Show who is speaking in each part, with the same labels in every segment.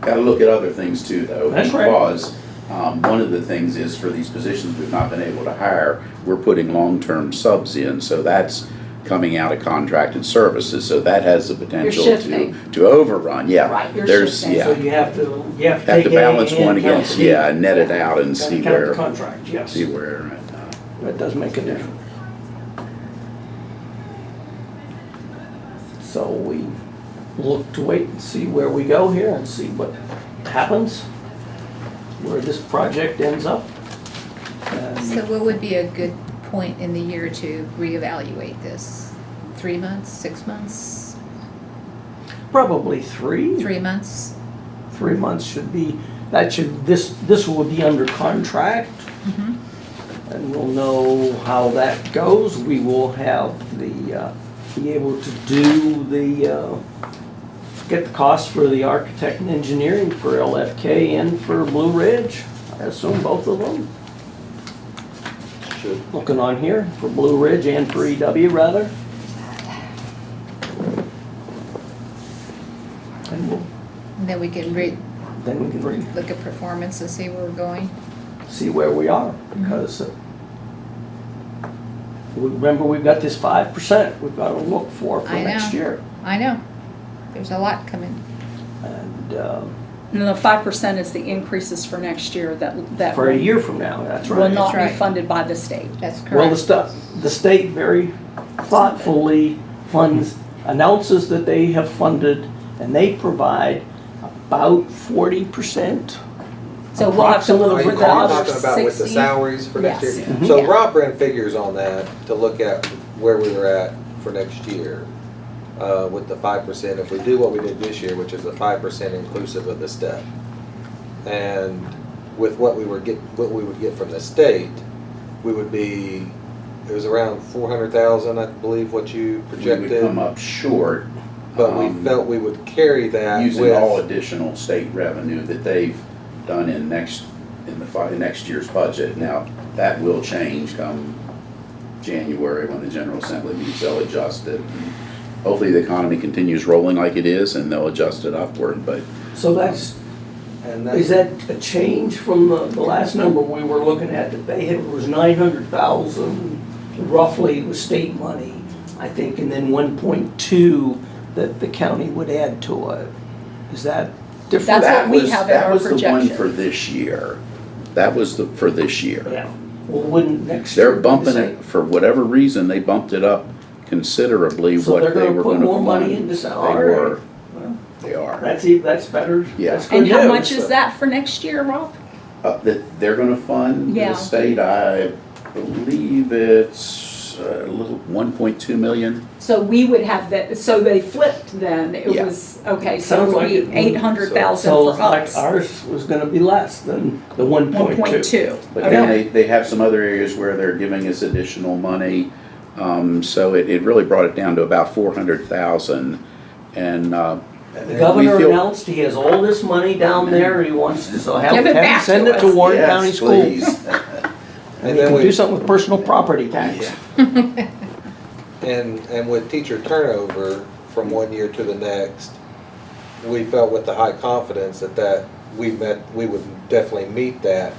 Speaker 1: Gotta look at other things too, though.
Speaker 2: That's right.
Speaker 1: Because, um, one of the things is for these positions we've not been able to hire, we're putting long-term subs in, so that's coming out of contracted services, so that has the potential to,
Speaker 3: shifting.
Speaker 1: to overrun, yeah.
Speaker 3: Right, you're
Speaker 1: There's-
Speaker 3: shifting.
Speaker 1: yeah.
Speaker 2: So you have to, you have to
Speaker 1: Have
Speaker 2: take
Speaker 1: to
Speaker 2: A
Speaker 1: balance
Speaker 2: and
Speaker 1: one
Speaker 2: count
Speaker 1: against,
Speaker 2: the B.
Speaker 1: yeah, and net it out and
Speaker 2: Gotta
Speaker 1: see
Speaker 2: count the
Speaker 1: where,
Speaker 2: Contract, yes.
Speaker 1: see where. uh,
Speaker 2: That does make a difference. So we look to wait and see where we go here and see what happens, where this project ends up.
Speaker 4: So
Speaker 2: And
Speaker 4: what would be a good point in the year to reevaluate this? Three months, six months,
Speaker 2: Probably three,
Speaker 4: three months?
Speaker 2: three months should be, that should, this, this will be under contract.
Speaker 4: Mhm.
Speaker 2: And we'll know how that goes. We will have the, uh, be able to do the, uh, get the cost for the architect and engineering for LFK and for Blue Ridge. I assume both of them.
Speaker 5: Should.
Speaker 2: Looking on here, for Blue Ridge and for EW rather. And we'll,
Speaker 4: And then we can re,
Speaker 2: then we can re,
Speaker 4: look at performance and see where we're going.
Speaker 2: see where we are,
Speaker 4: Mm-hmm.
Speaker 2: because uh, we- remember, we've got this five percent we've got to look for for
Speaker 4: I
Speaker 2: next
Speaker 4: know.
Speaker 2: year.
Speaker 4: I know, there's a lot coming.
Speaker 2: And um,
Speaker 3: And the five percent is the increases for next year that, that
Speaker 2: for a
Speaker 3: will
Speaker 2: year from now, that's
Speaker 3: will
Speaker 2: right.
Speaker 3: not
Speaker 4: That's
Speaker 3: be
Speaker 4: right.
Speaker 3: funded by the state.
Speaker 4: That's
Speaker 2: Well, the
Speaker 4: correct.
Speaker 2: stuff, the state very thoughtfully funds, announces that they have funded, and they provide about forty percent.
Speaker 3: So we'll have to
Speaker 2: Approximately
Speaker 3: look
Speaker 6: Are
Speaker 3: for
Speaker 6: you
Speaker 3: the other
Speaker 6: talking about with the
Speaker 3: sixty.
Speaker 6: salaries for next
Speaker 3: Yes.
Speaker 6: year?
Speaker 2: Mhm.
Speaker 6: So
Speaker 3: Yeah.
Speaker 6: Rob ran figures on that to look at where we were at for next year uh, with the five percent. If we do what we did this year, which is the five percent inclusive of the step. And with what we were get, what we would get from the state, we would be, it was around four hundred thousand, I believe, what you
Speaker 1: We would come
Speaker 6: projected.
Speaker 1: up short.
Speaker 6: But we
Speaker 1: um,
Speaker 6: felt we would carry that with.
Speaker 1: using all additional state revenue that they've done in next, in the, fi- in next year's budget. Now, that will change come January when the General Assembly meets, they'll adjust it. Hopefully, the economy continues rolling like it is and they'll adjust it upward, but
Speaker 2: So that's,
Speaker 6: And that's-
Speaker 2: is that a change from the, the last number we were looking at that they had was nine hundred thousand roughly was state money, I think, and then one point two that the county would add to it. Is that different?
Speaker 3: That's what
Speaker 1: that
Speaker 3: we
Speaker 1: was,
Speaker 3: have in
Speaker 1: that
Speaker 3: our
Speaker 1: was the one
Speaker 3: projection.
Speaker 1: for this year. That was the, for this year.
Speaker 2: Yeah, well, wouldn't next year?
Speaker 1: They're
Speaker 2: be the
Speaker 1: bumping
Speaker 2: same?
Speaker 1: it, for whatever reason, they bumped it up considerably
Speaker 2: So they're
Speaker 1: what they
Speaker 2: gonna
Speaker 1: were
Speaker 2: put
Speaker 1: gonna fund.
Speaker 2: more money into
Speaker 1: They
Speaker 2: sal- all
Speaker 1: were,
Speaker 2: right. Well,
Speaker 1: they are.
Speaker 2: That's, e- that's better.
Speaker 1: Yeah.
Speaker 2: That's good
Speaker 3: And how
Speaker 2: news.
Speaker 3: much is that for next year, Rob?
Speaker 1: Uh, that they're gonna fund
Speaker 3: Yeah.
Speaker 1: the state, I believe it's uh, a little, one point two million.
Speaker 3: So we would have that, so they flipped then, it
Speaker 1: Yeah.
Speaker 3: was, okay, so
Speaker 2: Sounds
Speaker 3: it would
Speaker 2: like it
Speaker 3: be
Speaker 2: would.
Speaker 3: eight hundred thousand
Speaker 2: So
Speaker 3: for
Speaker 2: it's like
Speaker 3: us.
Speaker 2: ours was gonna be less than the one
Speaker 3: One point
Speaker 2: point two.
Speaker 3: two.
Speaker 1: But then they, they have some other areas where they're giving us additional money. Um, so it, it really brought it down to about four hundred thousand and, uh.
Speaker 2: The
Speaker 1: we
Speaker 2: governor
Speaker 1: feel-
Speaker 2: announced he has all this money down there, he wants to, so have,
Speaker 3: Give
Speaker 2: have
Speaker 3: it
Speaker 2: him
Speaker 3: back
Speaker 2: send
Speaker 3: to
Speaker 2: it to
Speaker 3: us.
Speaker 2: Warren
Speaker 1: Yes,
Speaker 2: County Schools.
Speaker 1: please.
Speaker 2: And
Speaker 6: And
Speaker 2: he
Speaker 6: then
Speaker 2: can
Speaker 6: we-
Speaker 2: do something with personal property tax.
Speaker 1: Yeah.
Speaker 6: And, and with teacher turnover from one year to the next, we felt with the high confidence that that, we met, we would definitely meet that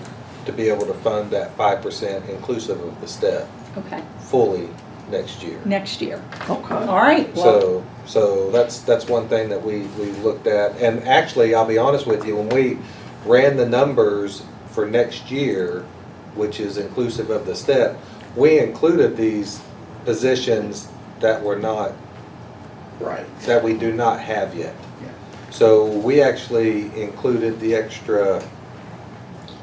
Speaker 6: to be able to fund that five percent inclusive of the step
Speaker 3: Okay,
Speaker 6: fully next year.
Speaker 3: next year.
Speaker 2: Okay.
Speaker 3: All right, well,
Speaker 6: So, so that's, that's one thing that we, we looked at, and actually, I'll be honest with you, when we ran the numbers for next year, which is inclusive of the step, we included these positions that were not,
Speaker 1: Right.
Speaker 6: that we do not have yet.
Speaker 1: Yeah.
Speaker 6: So we actually included the extra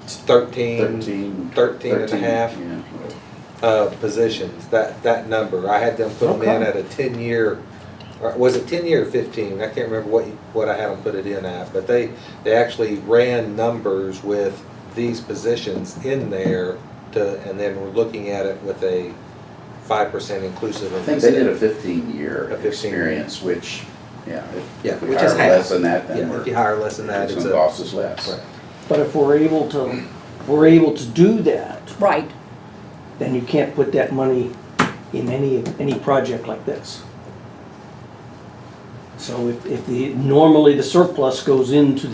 Speaker 6: thirteen,
Speaker 1: Thirteen.
Speaker 6: thirteen and a
Speaker 1: 13,
Speaker 6: half
Speaker 1: yeah.
Speaker 6: uh, positions, that, that number. I had them put them in
Speaker 2: Okay.
Speaker 6: at a ten-year, or was it ten-year or fifteen? I can't remember what, you- what I had them put it in at, but they, they actually ran numbers with these positions in there to, and then we're looking at it with a five percent inclusive
Speaker 1: I
Speaker 6: of
Speaker 1: think
Speaker 6: this.
Speaker 1: they did a fifteen-year
Speaker 6: A 15 year.
Speaker 1: experience, which, yeah, if-
Speaker 6: Yeah,
Speaker 1: if we
Speaker 6: which
Speaker 1: hire
Speaker 6: is half.
Speaker 1: less than that, then
Speaker 6: Yeah,
Speaker 1: we're,
Speaker 6: if you hire less than that,
Speaker 1: it's
Speaker 6: it's
Speaker 1: gonna
Speaker 6: a.
Speaker 1: cost us less.
Speaker 6: Right.
Speaker 2: But if we're able to, if we're able to do that,
Speaker 3: right,
Speaker 2: then you can't put that money in any, any project like this. So if, if the, normally the surplus goes into